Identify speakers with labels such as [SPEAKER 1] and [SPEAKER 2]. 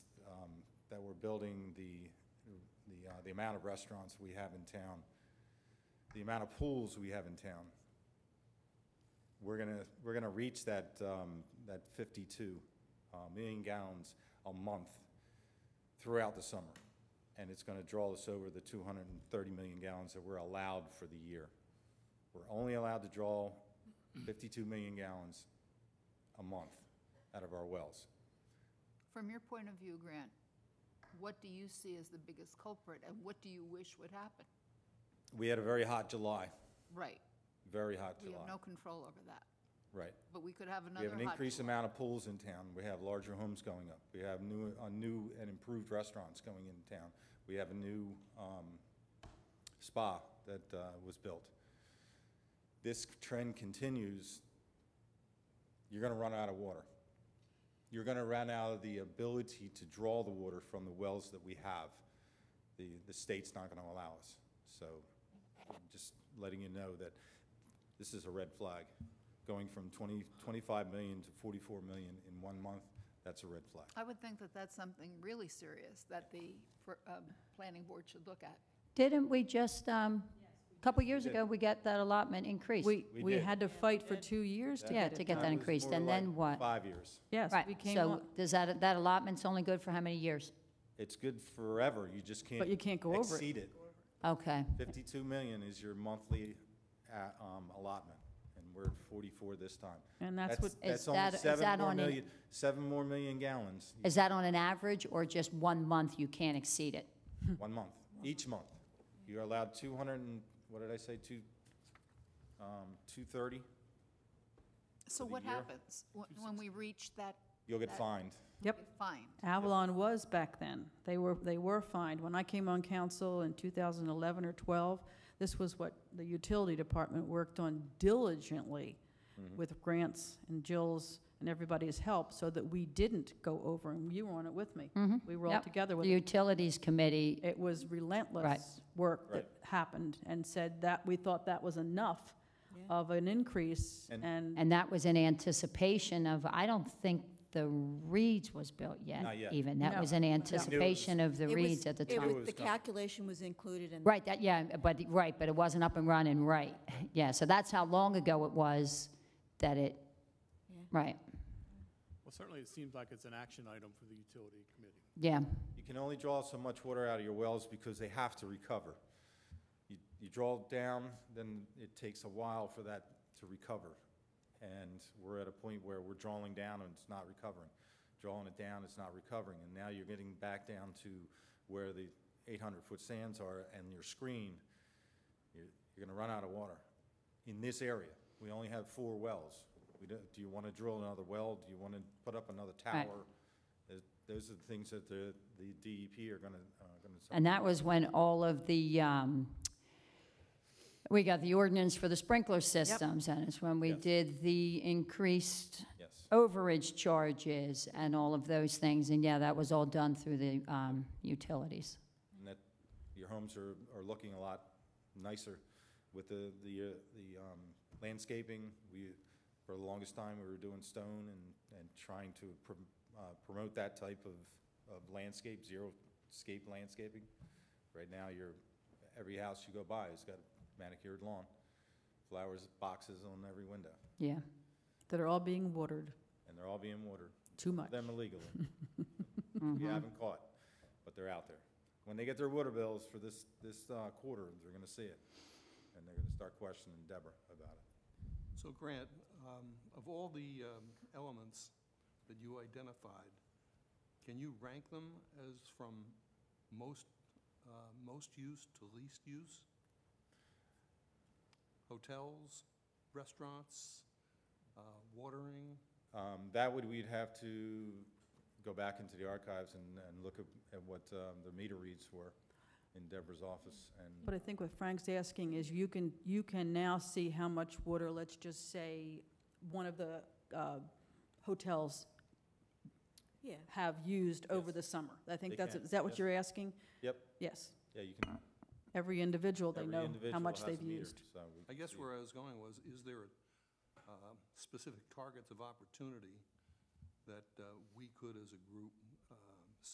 [SPEAKER 1] um, building, the, the, uh, the amount of restaurants we have in town, the amount of pools we have in town. We're gonna, we're gonna reach that, um, that 52 uh, million gallons a month throughout the summer. And it's gonna draw us over the 230 million gallons that we're allowed for the year. We're only allowed to draw 52 million gallons a month out of our wells.
[SPEAKER 2] From your point of view, Grant, what do you see as the biggest culprit, and what do you wish would happen?
[SPEAKER 1] We had a very hot July,
[SPEAKER 2] Right,
[SPEAKER 1] very hot
[SPEAKER 2] we have
[SPEAKER 1] July.
[SPEAKER 2] no control over that,
[SPEAKER 1] Right.
[SPEAKER 2] but we could have
[SPEAKER 1] We
[SPEAKER 2] another
[SPEAKER 1] have
[SPEAKER 2] hot...
[SPEAKER 1] an increased amount of pools in town. We have larger homes going up. We have new, uh, new and improved restaurants going in town. We have a new, um, spa that, uh, was built. This trend continues, you're gonna run out of water. You're gonna run out of the ability to draw the water from the wells that we have. The, the state's not gonna allow us. So, I'm just letting you know that this is a red flag. Going from 20, 25 million to 44 million in one month, that's a red flag.
[SPEAKER 2] I would think that that's something really serious that the fir- um, planning board should look at.
[SPEAKER 3] Didn't we just, um, a couple years ago, we got that allotment increased?
[SPEAKER 4] We,
[SPEAKER 1] We
[SPEAKER 4] we
[SPEAKER 1] did.
[SPEAKER 4] had to fight for two years to
[SPEAKER 3] Yeah,
[SPEAKER 4] get
[SPEAKER 3] to
[SPEAKER 4] it
[SPEAKER 3] get
[SPEAKER 4] done.
[SPEAKER 3] that
[SPEAKER 1] It was
[SPEAKER 3] increased,
[SPEAKER 1] more
[SPEAKER 3] and then
[SPEAKER 1] like
[SPEAKER 3] what?
[SPEAKER 1] Five years.
[SPEAKER 4] Yes,
[SPEAKER 3] Right,
[SPEAKER 4] we came
[SPEAKER 3] so
[SPEAKER 4] up,
[SPEAKER 3] does that, that allotment's only good for how many years?
[SPEAKER 1] It's good forever, you just can't.
[SPEAKER 4] But you can't go over it.
[SPEAKER 1] Exceed it.
[SPEAKER 3] Okay,
[SPEAKER 1] 52 million is your monthly uh, um, allotment, and we're at 44 this time.
[SPEAKER 4] and that's what,
[SPEAKER 3] Is
[SPEAKER 1] That's almost
[SPEAKER 3] that- is
[SPEAKER 1] seven
[SPEAKER 3] that
[SPEAKER 1] more
[SPEAKER 3] on an-
[SPEAKER 1] million, seven more million gallons,
[SPEAKER 3] is that on an average, or just one month you can't exceed it?
[SPEAKER 4] Hmm.
[SPEAKER 1] one month, each month. You're allowed 200 and, what did I say, two, um, 230?
[SPEAKER 2] So
[SPEAKER 1] the
[SPEAKER 2] what
[SPEAKER 1] year?
[SPEAKER 2] happens wh- when we reach that
[SPEAKER 1] You'll get
[SPEAKER 2] That-
[SPEAKER 1] fined.
[SPEAKER 4] yep.
[SPEAKER 2] fine?
[SPEAKER 4] Avalon was back then. They were, they were fined. When I came on council in 2011 or 12, this was what the utility department worked on diligently
[SPEAKER 3] Mm-hmm.
[SPEAKER 4] with Grant's and Jill's and everybody's help so that we didn't go over, and you were on it with me. We were
[SPEAKER 3] Mm-hmm.
[SPEAKER 4] all
[SPEAKER 3] Yep.
[SPEAKER 4] together with
[SPEAKER 3] The
[SPEAKER 4] it.
[SPEAKER 3] Utilities Committee,
[SPEAKER 4] It was relentless work that happened and said that, we thought that was enough of an increase
[SPEAKER 1] And-
[SPEAKER 4] and,
[SPEAKER 3] and that was in anticipation of, I don't think the Reeds was built yet,
[SPEAKER 1] Not yet.
[SPEAKER 3] even. That
[SPEAKER 4] No.
[SPEAKER 3] was in anticipation of the
[SPEAKER 5] It was-
[SPEAKER 3] Reeds at the
[SPEAKER 5] it
[SPEAKER 3] time.
[SPEAKER 5] was-
[SPEAKER 1] It was
[SPEAKER 5] The
[SPEAKER 1] coming.
[SPEAKER 5] calculation was included in.
[SPEAKER 3] Right, that, yeah, but, right, but it wasn't up and running, right. Yeah, so that's how long ago it was that it,
[SPEAKER 5] Yeah.
[SPEAKER 3] right,
[SPEAKER 6] Well, certainly it seems like it's an action item for the utility committee.
[SPEAKER 3] yeah.
[SPEAKER 1] You can only draw so much water out of your wells because they have to recover. You, you draw down, then it takes a while for that to recover. And we're at a point where we're drawing down and it's not recovering. Drawing it down, it's not recovering. And now you're getting back down to where the 800-foot sands are and your screen, you're, you're gonna run out of water. In this area, we only have four wells. We don't, do you wanna drill another well? Do you wanna put up another
[SPEAKER 3] Right.
[SPEAKER 1] tower? Th- Those are the things that the, the DEP are gonna, uh, gonna.
[SPEAKER 3] And that was when all of the, um, we got the ordinance for the sprinkler systems, and it's when we
[SPEAKER 1] Yes.
[SPEAKER 3] did the increased
[SPEAKER 1] Yes,
[SPEAKER 3] overage charges and all of those things, and yeah, that was all done through the um, utilities.
[SPEAKER 1] and that, your homes are, are looking a lot nicer with the, the, uh, the um, landscaping. We, for the longest time, we were doing stone and, and trying to prom- uh, promote that type of, of landscape, zero-scape landscaping. Right now, you're, every house you go by has got a manicured lawn, flowers, boxes on every window,
[SPEAKER 3] Yeah,
[SPEAKER 4] that are all being watered
[SPEAKER 1] and they're all being watered.
[SPEAKER 4] too much.
[SPEAKER 1] them illegally.
[SPEAKER 4] Uh-huh.
[SPEAKER 1] We haven't caught, but they're out there. When they get their water bills for this, this uh, quarter, they're gonna see it, and they're gonna start questioning Deborah about it.
[SPEAKER 7] So Grant, um, of all the um, elements that you identified, can you rank them as from most, uh, most use to least use? Hotels, restaurants, uh, watering?
[SPEAKER 1] Um, That would, we'd have to go back into the archives and, and look at- at what um, the meter reads were in Deborah's office,
[SPEAKER 4] But
[SPEAKER 1] and
[SPEAKER 4] I think what Frank's asking is you can, you can now see how much water, let's just say, one of the uh, hotels
[SPEAKER 5] Yeah.
[SPEAKER 4] have used over
[SPEAKER 1] Yes.
[SPEAKER 4] the summer. I
[SPEAKER 1] They
[SPEAKER 4] think that's,
[SPEAKER 1] can,
[SPEAKER 4] is that what
[SPEAKER 1] yes.
[SPEAKER 4] you're asking?
[SPEAKER 1] Yep.
[SPEAKER 4] Yes.
[SPEAKER 1] yeah, you can,
[SPEAKER 4] Every individual, they
[SPEAKER 1] every
[SPEAKER 4] know how
[SPEAKER 1] individual
[SPEAKER 4] much
[SPEAKER 1] has a
[SPEAKER 4] they've
[SPEAKER 1] meter,
[SPEAKER 4] used.
[SPEAKER 1] so. we
[SPEAKER 7] I
[SPEAKER 1] can
[SPEAKER 7] guess
[SPEAKER 1] see.
[SPEAKER 7] where I was going was, is there uh, specific targets of opportunity that uh, we could, as a group,